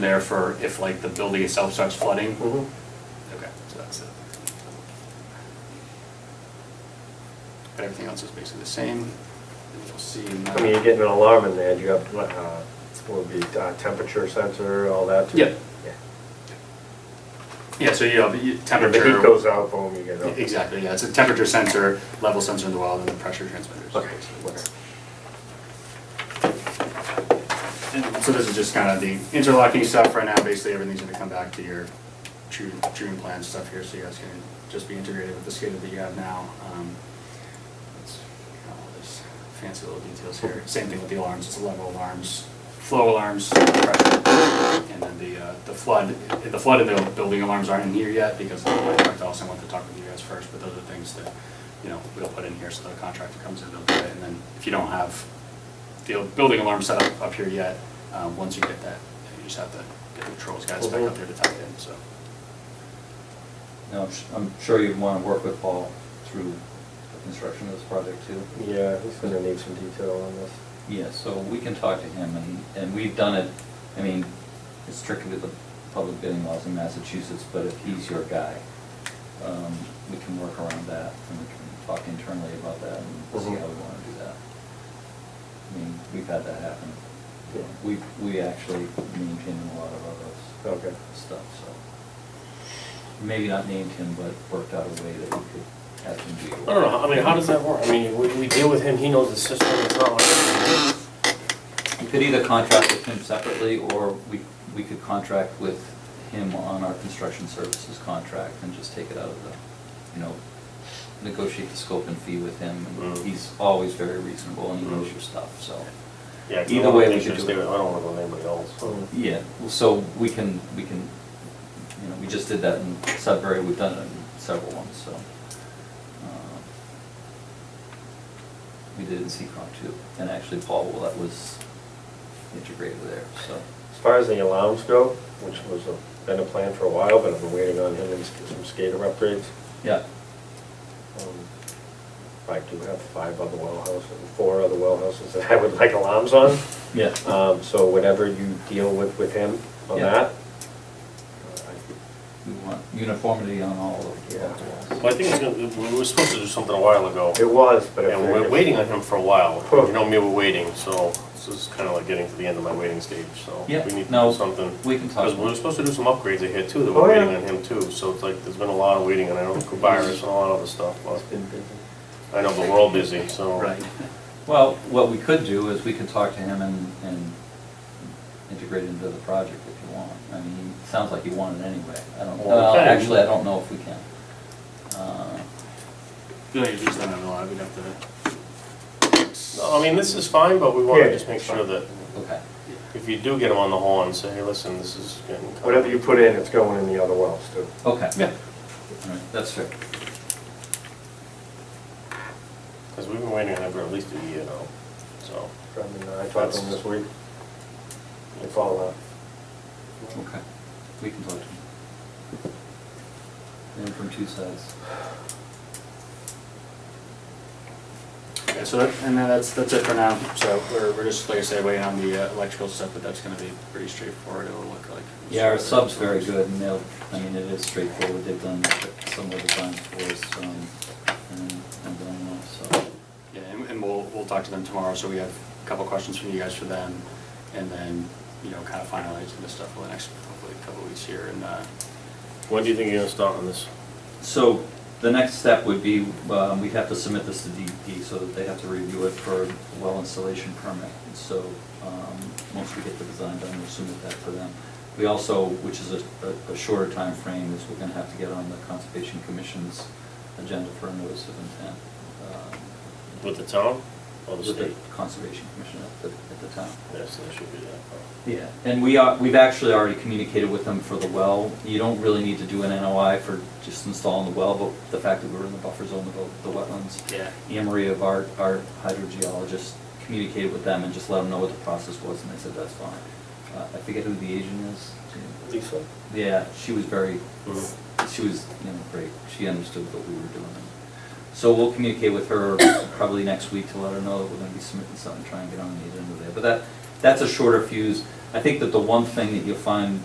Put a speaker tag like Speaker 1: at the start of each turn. Speaker 1: there for if like the building itself starts flooding?
Speaker 2: Mhm.
Speaker 1: Okay, so that's it. But everything else is basically the same, and you'll see. in the-
Speaker 2: I mean, you're getting an alarm in there, you got, uh, what would be, uh, temperature sensor, all that too?
Speaker 1: Yep.
Speaker 2: Yeah.
Speaker 1: Yeah, so you have you-
Speaker 2: If
Speaker 1: temperature.
Speaker 2: the heat goes out, boom, you get up.
Speaker 1: Exactly, yeah, it's a temperature sensor, level sensor in the wild, and the pressure transmitters.
Speaker 2: Okay.
Speaker 1: And so this is just kind of the interlocking stuff right now, basically everything's gonna come back to your true, true plan stuff here, so you guys can just be integrated with the schedule that you have now. Um, it's kind of all these Fancy little details here, same thing with the alarms, it's level alarms, flow alarms, pressure, and then the, uh, the flood, the flood and the building alarms aren't in here yet, because the contractor also wanted to talk with you guys first, but those are things that, you know, we'll put in here, so the contractor comes in, they'll do it, and then if you don't have the building alarm set up up here yet. Um, Once you get that, you just have to get the controls guys back up there to tuck it in, so.
Speaker 3: Now, I'm s- I'm sure you'd want to work with Paul through the construction of this project too.
Speaker 2: Yeah, he's gonna need some detail on this.
Speaker 3: Yeah, so we can talk to him and, and we've done it, I mean, it's strictly the public bidding laws in Massachusetts, but if he's your guy, um, we can work around that and we can talk internally about that and see how we want to do that. I mean, we've had that happen.
Speaker 2: Yeah.
Speaker 3: We, we actually maintain a lot of our those
Speaker 2: Okay.
Speaker 3: stuff, so. Maybe not named him, but worked out a way that we could have him do your work.
Speaker 4: I don't know, I mean, how does that work? I mean, we, we deal with him, he knows the system, it's not like.
Speaker 3: You could either contract with him separately, or we, we could contract with him on our construction services contract and just take it out of the, you know, negotiate the scope and fee with him. and
Speaker 4: Mm-hmm.
Speaker 2: Mm.
Speaker 3: He's always very reasonable and he knows
Speaker 2: Mm.
Speaker 3: your stuff, so.
Speaker 4: Yeah, 'cause I
Speaker 3: Either
Speaker 4: don't
Speaker 3: way,
Speaker 4: think
Speaker 3: we could
Speaker 4: just
Speaker 3: do
Speaker 4: do
Speaker 3: it.
Speaker 4: it. I don't wanna go with anybody else.
Speaker 2: Mm.
Speaker 3: Yeah, so we can, we can, you know, we just did that in Sudbury, we've done it in several ones, so. uh, We did it in Seacon too, and actually Paul, well, that was integrated there, so.
Speaker 2: As far as the alarms go, which was, a- been a plan for a while, but I've been waiting on him and s- some skater upgrades.
Speaker 3: Yeah,
Speaker 2: Um, I do have five other well houses, four other well houses that I would like alarms on.
Speaker 3: yeah.
Speaker 2: Um, so whatever you deal with, with him on
Speaker 3: Yeah.
Speaker 2: that.
Speaker 3: We want uniformity on all of the
Speaker 2: Yeah.
Speaker 3: walls.
Speaker 4: Well, I think it's gonna, we were supposed to do something a while ago,
Speaker 2: It was, but. if
Speaker 4: and Uh, we're
Speaker 2: if-
Speaker 4: waiting on him for a while. You know me, we're waiting, so this is kinda like getting to the end of my waiting stage, so we
Speaker 3: Yeah,
Speaker 4: need to
Speaker 3: no.
Speaker 4: do something.
Speaker 3: We can talk.
Speaker 4: Because we were supposed to do some upgrades in here too, that
Speaker 2: Oh,
Speaker 4: we're
Speaker 2: yeah.
Speaker 4: waiting on him too, so it's like, there's been a lot of waiting, and I know Kubiris and a lot of other stuff, but
Speaker 2: It's been busy.
Speaker 4: I know, but we're all busy, so.
Speaker 3: Well, what we could do is we could talk to him and, and integrate it into the project if you want. I mean, it sounds like you want it anyway. I don't, well,
Speaker 4: Okay.
Speaker 3: actually, I don't know if we can. Uh,
Speaker 1: The only reason I don't know, I would have to.
Speaker 4: No, I mean, this is fine, but we wanna
Speaker 2: Yeah,
Speaker 4: just make
Speaker 2: it's fine.
Speaker 4: sure that
Speaker 3: Okay,
Speaker 4: if you do get him on the horn, say, hey, listen, this is getting. kinda-
Speaker 2: Whatever you put in, it's going in the other wells too.
Speaker 3: okay.
Speaker 1: Yeah.
Speaker 3: All right, that's fair.
Speaker 4: Because we've been waiting on it for at least a year now, so.
Speaker 2: I mean, uh, I talked to him this week. It's all, uh,
Speaker 3: Okay, we can talk to him. And from two sides.
Speaker 1: Yeah, so that, and then that's, that's it for now, so we're, we're just, like I said, waiting on the uh, electrical stuff, but that's gonna be pretty straightforward, it'll look like.
Speaker 3: Yeah, our sub's very good, and they'll, I mean, it is straightforward, they've done some of the times for us, um, and, and done well, so.
Speaker 1: Yeah, and, and we'll, we'll talk to them tomorrow, so we have a couple questions from you guys for them, and then, you know, kind of finalizing this stuff for the next, hopefully, couple weeks here, and, uh,
Speaker 4: When do you think you're gonna start on this?
Speaker 3: So, the next step would be, um, we have to submit this to DEP, so that they have to review it for well installation permit. So, um, once we get the design done, we'll submit that to them. We also, which is a, a- a shorter time frame, is we're gonna have to get on the Conservation Commission's agenda for a notice of intent. um,
Speaker 4: With the town or Oh, the
Speaker 3: With the
Speaker 4: state?
Speaker 3: Conservation Commission at the, at the time.
Speaker 4: Yes, that should be that.
Speaker 3: Yeah, and we are, we've actually already communicated with them for the well. You don't really need to do an NOI for just installing the well, but the fact that we're in the buffer zone of the the wetlands.
Speaker 1: yeah,
Speaker 3: Anne Marie of our, our hydrogeologist communicated with them and just let them know what the process was, and they said, that's fine. Uh, I forget who the agent is.
Speaker 2: Lisa,
Speaker 3: Yeah, she was very,
Speaker 4: Mhm.
Speaker 3: she was, you know, great. She understood what we were doing. So we'll communicate with her probably next week to let her know that we're gonna be submitting something, try and get on the agenda there. But that, that's a shorter fuse. I think that the one thing that you'll find